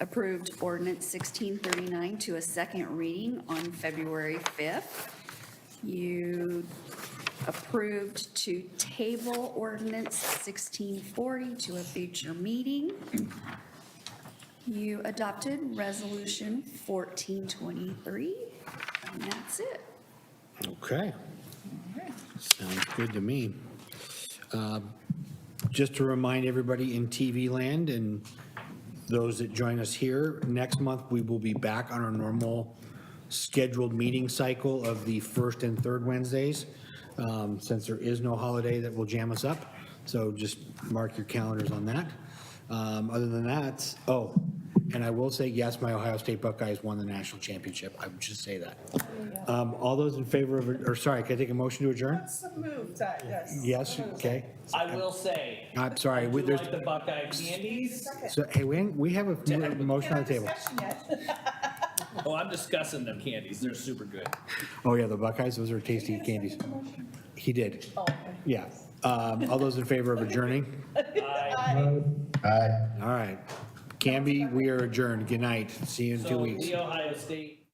approved ordinance 1639 to a second reading on February 5th. You approved to table ordinance 1640 to a future meeting. You adopted resolution 1423, and that's it. Okay. Sounds good to me. Um, Just to remind everybody in TV land and those that join us here, next month, we will be back on our normal scheduled meeting cycle of the first and third Wednesdays, um, since there is no holiday that will jam us up. So just mark your calendars on that. Um, Other than that, oh, and I will say, yes, my Ohio State Buckeyes won the national championship. I would just say that. Um, All those in favor of, or sorry, can I take a motion to adjourn? Let's move that, yes. Yes, okay. I will say, I'm sorry, do um, we- you there's, like the Buckeye candies? so, hey, we, we have a motion on the table. Discussion yet. Oh, I'm discussing them candies. They're super good. Oh, yeah, the Buckeyes, those are tasty candies. He did, Oh, okay. yeah. Um, All those in favor of adjourning? Aye. All right. Canby, we are adjourned. Good night. See you in two So weeks. the Ohio State